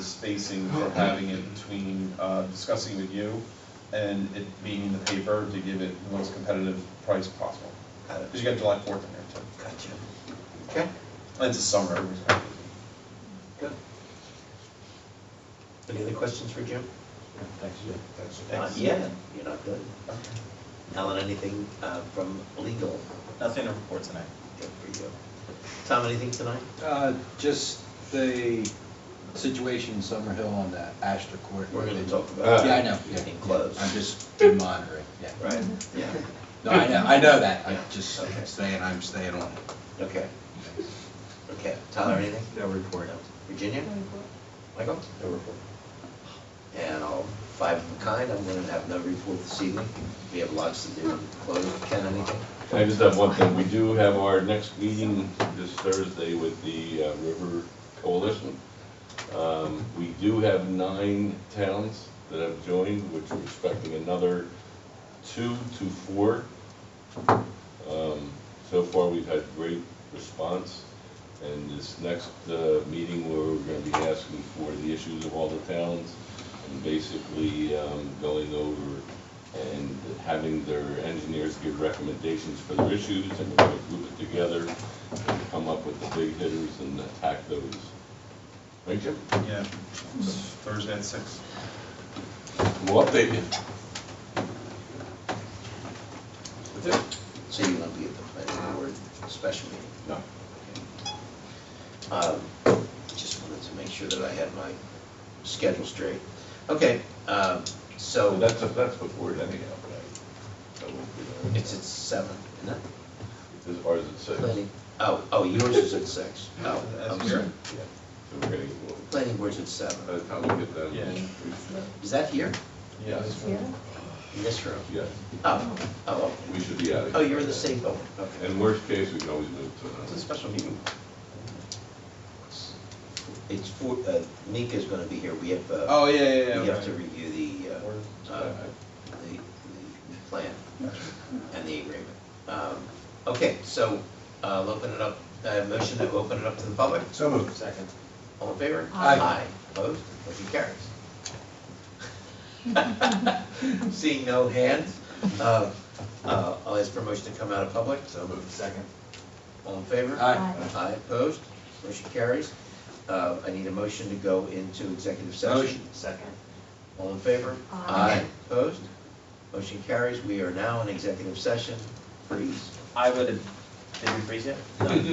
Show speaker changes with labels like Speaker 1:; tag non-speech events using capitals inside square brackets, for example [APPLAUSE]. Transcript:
Speaker 1: spacing for having it between uh, discussing with you and it being in the paper to give it the most competitive price possible.
Speaker 2: Got
Speaker 1: Because you got July 4th in there too.
Speaker 2: Gotcha. Okay,
Speaker 1: And It's a summer. everybody's happy.
Speaker 2: good. Any other questions for Jim?
Speaker 3: Thanks.
Speaker 2: Not yet, you're not good. Alan, anything uh, from legal?
Speaker 1: Nothing to report tonight.
Speaker 2: Good for you. Tom, anything tonight?
Speaker 4: Uh, Just the situation in Summerhill on the Astor Court.
Speaker 2: We're gonna talk about.
Speaker 3: Uh,
Speaker 4: Yeah, I know, yeah.
Speaker 2: Getting close.
Speaker 4: I'm just been monitoring, yeah.
Speaker 2: Right, yeah,
Speaker 4: No, I know, I know that, I'm
Speaker 2: Yeah,
Speaker 4: just
Speaker 2: okay.
Speaker 4: saying, I'm staying on it.
Speaker 2: okay. Okay, Tyler, anything?
Speaker 3: No report.
Speaker 2: No. Virginia? Michael? No report. And all five of a kind, I'm gonna have no report this evening. We have lots to do, close, Ken, anything?
Speaker 5: I just have one thing, we do have our next meeting this Thursday with the uh, River Coalition. Um, We do have nine towns that have joined, which we're expecting another two to four. Um, So far, we've had great response, and this next uh, meeting, we're gonna be asking for the issues of all the towns, and basically um, going over and having their engineers give recommendations for their issues, and we're gonna group it together, and come up with the big hitters and attack those. Right, Jim?
Speaker 1: Yeah, it's Thursday at six.
Speaker 5: We'll update you. That's it?
Speaker 2: So you won't be at the planning board special meeting?
Speaker 5: No.
Speaker 2: Um, Just wanted to make sure that I had my schedule straight. Okay, um,
Speaker 5: So
Speaker 2: so
Speaker 5: that's, that's before it ending up, right? So we'll get
Speaker 2: it's at seven, isn't it?
Speaker 5: it. As far as it says.
Speaker 2: Planning, oh, oh, yours is at six. Oh, I'm sorry.
Speaker 5: Yeah. So we're getting, well,
Speaker 2: Planning board's at
Speaker 5: by
Speaker 2: seven.
Speaker 5: the time we get done.
Speaker 1: Yeah.
Speaker 2: Is that here?
Speaker 5: Yes,
Speaker 2: In this room?
Speaker 5: yes,
Speaker 2: Oh, oh,
Speaker 5: we should be out of here.
Speaker 2: oh, you're in the same building, okay.
Speaker 5: In worst case, we can always move to
Speaker 1: It's
Speaker 5: another.
Speaker 1: a special meeting.
Speaker 2: It's for, uh, Nika's gonna be here, we have, uh,
Speaker 1: Oh, yeah, yeah, yeah.
Speaker 2: we have
Speaker 1: okay.
Speaker 2: to review the, uh, uh, the, the plan and the agreement. Um, Okay, so, uh, I'll open it up, uh, motion that we open it up to the public,
Speaker 3: So moved. Second.
Speaker 2: all in favor?
Speaker 6: Aye.
Speaker 2: Opposed, motion carries. [LAUGHS] Seeing no hands, uh, uh, I'll ask for motion to come out of public,
Speaker 3: So moved. Second.
Speaker 2: all in favor?
Speaker 4: Aye.
Speaker 2: Aye, opposed, motion carries. Uh, I need a motion to go into executive session.
Speaker 4: Motion.
Speaker 3: Second.
Speaker 2: All in favor?
Speaker 6: Aye.
Speaker 2: Opposed? Motion carries. We are now in executive session. Please.
Speaker 7: I would, did we freeze it? No.